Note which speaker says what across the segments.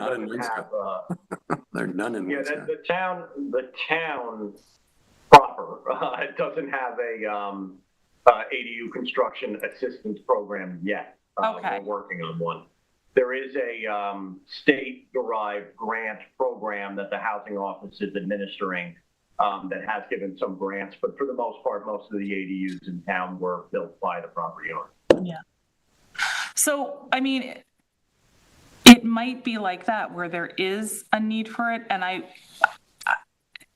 Speaker 1: Not in
Speaker 2: doesn't have, uh,
Speaker 1: There are none in
Speaker 2: Yeah,
Speaker 1: Woodstock.
Speaker 2: the, the town, the town proper, uh, it doesn't have a, um, uh, ADU construction assistance program yet. Uh,
Speaker 3: Okay.
Speaker 2: We're working on one. There is a, um, state-derived grant program that the housing office is administering, um, that has given some grants, but for the most part, most of the ADUs in town were built by the property owner.
Speaker 3: So, I mean, it- it might be like that where there is a need for it. And I,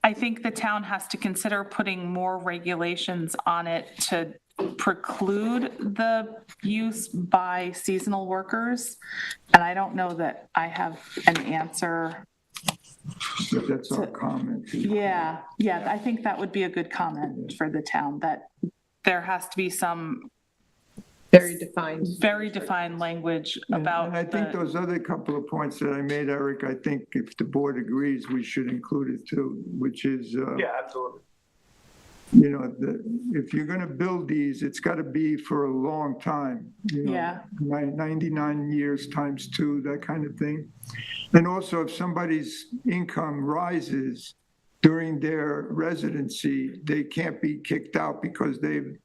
Speaker 3: I think the town has to consider putting more regulations on it to preclude the use by seasonal workers. And I don't know that I have an answer.
Speaker 4: But that's our comment.
Speaker 3: Yeah, yeah, I think that would be a good comment for the town, that there has to be some
Speaker 5: Very defined.
Speaker 3: very defined language
Speaker 4: And-
Speaker 3: about
Speaker 4: And I think
Speaker 3: the,
Speaker 4: those other couple of points that I made, Eric, I think if the board agrees, we should include it too, which is, uh,
Speaker 2: Yeah, absolutely.
Speaker 4: you know, the- if you're going to build these, it's got to be for a long time. you know,
Speaker 3: Yeah.
Speaker 4: nine- 99 years times two, that kind of thing. And also, if somebody's income rises during their residency, they can't be kicked out because they've,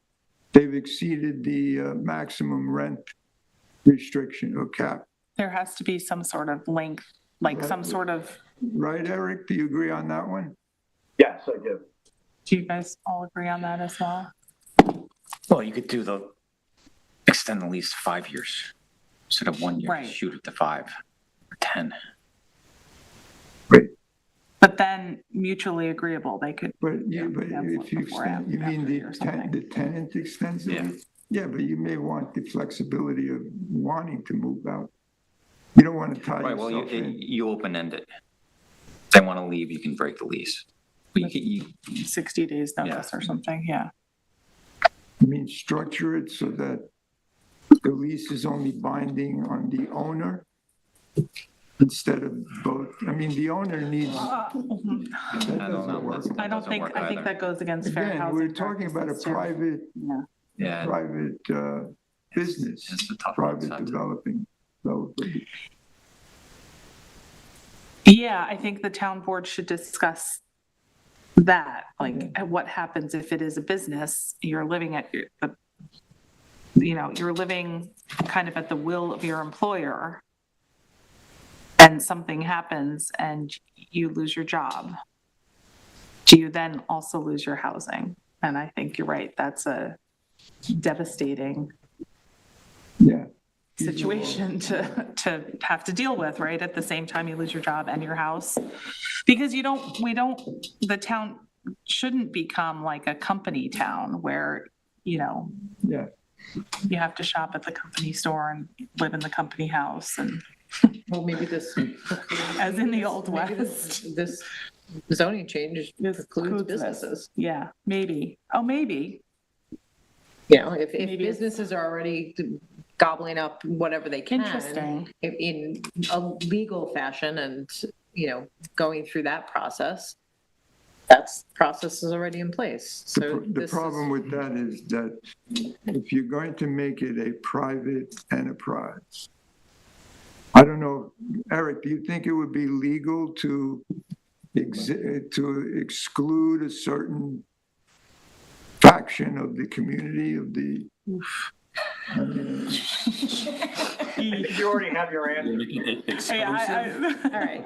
Speaker 4: they've exceeded the uh, maximum rent restriction or cap.
Speaker 3: there has to be some sort of length, like some sort of,
Speaker 4: Right, Eric? Do you agree on that one?
Speaker 2: Yes, I do.
Speaker 3: do you guys all agree on that as well?
Speaker 6: Well, you could do the, extend the lease to five years instead of one year,
Speaker 3: Right.
Speaker 6: shoot it to five, or 10.
Speaker 3: But then mutually agreeable, they could,
Speaker 4: But
Speaker 6: Yeah.
Speaker 4: you, but
Speaker 3: That's
Speaker 4: if you
Speaker 3: before
Speaker 4: extend, you mean
Speaker 3: after
Speaker 4: the
Speaker 3: or something.
Speaker 4: tenant, the tenant extends it?
Speaker 6: Yeah.
Speaker 4: Yeah, but you may want the flexibility of wanting to move out. You don't want to tie
Speaker 6: Right, well, you,
Speaker 4: yourself in.
Speaker 6: you open end it. If they want to leave, you can break the lease. But you, can- you,
Speaker 3: 60 days notice or something, yeah.
Speaker 4: I mean, structure it so that the lease is only binding on the owner instead of both. I mean, the owner needs, that
Speaker 3: Uh, mhm.
Speaker 4: doesn't
Speaker 6: I don't know,
Speaker 4: work.
Speaker 6: that's-
Speaker 3: I don't
Speaker 6: Doesn't
Speaker 3: think,
Speaker 6: work
Speaker 3: I think
Speaker 6: either.
Speaker 3: that goes against fair
Speaker 4: Again,
Speaker 3: housing.
Speaker 4: we're talking about a
Speaker 3: practices, too.
Speaker 4: private,
Speaker 3: Yeah.
Speaker 6: yeah,
Speaker 4: private uh, business,
Speaker 6: it's a tough one.
Speaker 4: private
Speaker 6: sometimes.
Speaker 4: developing, developer.
Speaker 3: Yeah, I think the town board should discuss that, like, what happens if it is a business, you're living at, your- the- you know, you're living kind of at the will of your employer, and something happens and you lose your job, do you then also lose your housing? And I think you're right, that's a devastating
Speaker 4: Yeah.
Speaker 3: situation to, to have to deal with, right? At the same time, you lose your job and your house. Because you don't, we don't, the town shouldn't become like a company town where, you know,
Speaker 4: Yeah.
Speaker 3: you have to shop at the company store and live in the company house and,
Speaker 5: Well, maybe this.
Speaker 3: as in the old
Speaker 5: maybe
Speaker 3: west.
Speaker 5: this- This zoning change
Speaker 3: This
Speaker 5: precludes
Speaker 3: precludes this.
Speaker 5: businesses.
Speaker 3: Yeah, maybe. Oh, maybe.
Speaker 5: You know, if, if
Speaker 3: Maybe it's-
Speaker 5: businesses are already gobbling up whatever they can.
Speaker 3: Interesting.
Speaker 5: In, in a legal fashion and, you know, going through that process, that's, process is already in place.
Speaker 4: The
Speaker 5: So
Speaker 4: pr- The
Speaker 5: this is-
Speaker 4: problem with that is that if you're going to make it a private enterprise, I don't know, Eric, do you think it would be legal to ex- to exclude a certain faction of the community of the?
Speaker 2: You already have your answer.
Speaker 3: Yeah, I- I-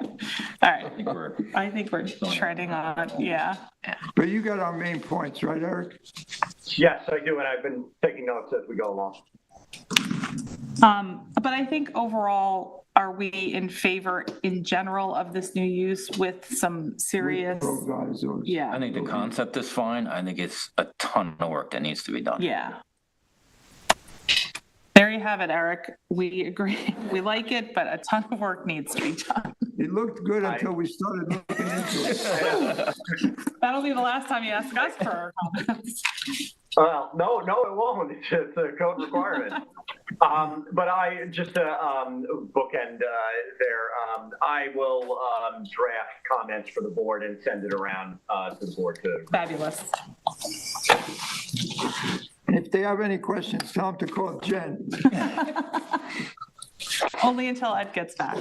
Speaker 5: All right.
Speaker 3: All right.
Speaker 6: I think we're-
Speaker 3: I think we're treading on, yeah.
Speaker 4: But you got our main points, right, Eric?
Speaker 2: Yes, I do, and I've been taking notes as we go along.
Speaker 3: Um, but I think overall, are we in favor in general of this new use with some serious?
Speaker 4: Pro guys or-
Speaker 6: I
Speaker 3: Yeah,
Speaker 6: think the concept is fine. I think it's a ton of work that needs to be done.
Speaker 3: yeah. There you have it, Eric. We agree. We like it, but a ton of work needs to be done.
Speaker 4: It looked good until we started looking into it.
Speaker 3: That'll be the last time you ask us for our comments.
Speaker 2: Well, no, no, it won't. It's just a code requirement. um, but I just to um, bookend uh, there. Um, I will um, draft comments for the board and send it around uh, to the board to.
Speaker 3: Fabulous.
Speaker 4: And If they have any questions, tell them to call Jen.
Speaker 3: Only until Ed gets back.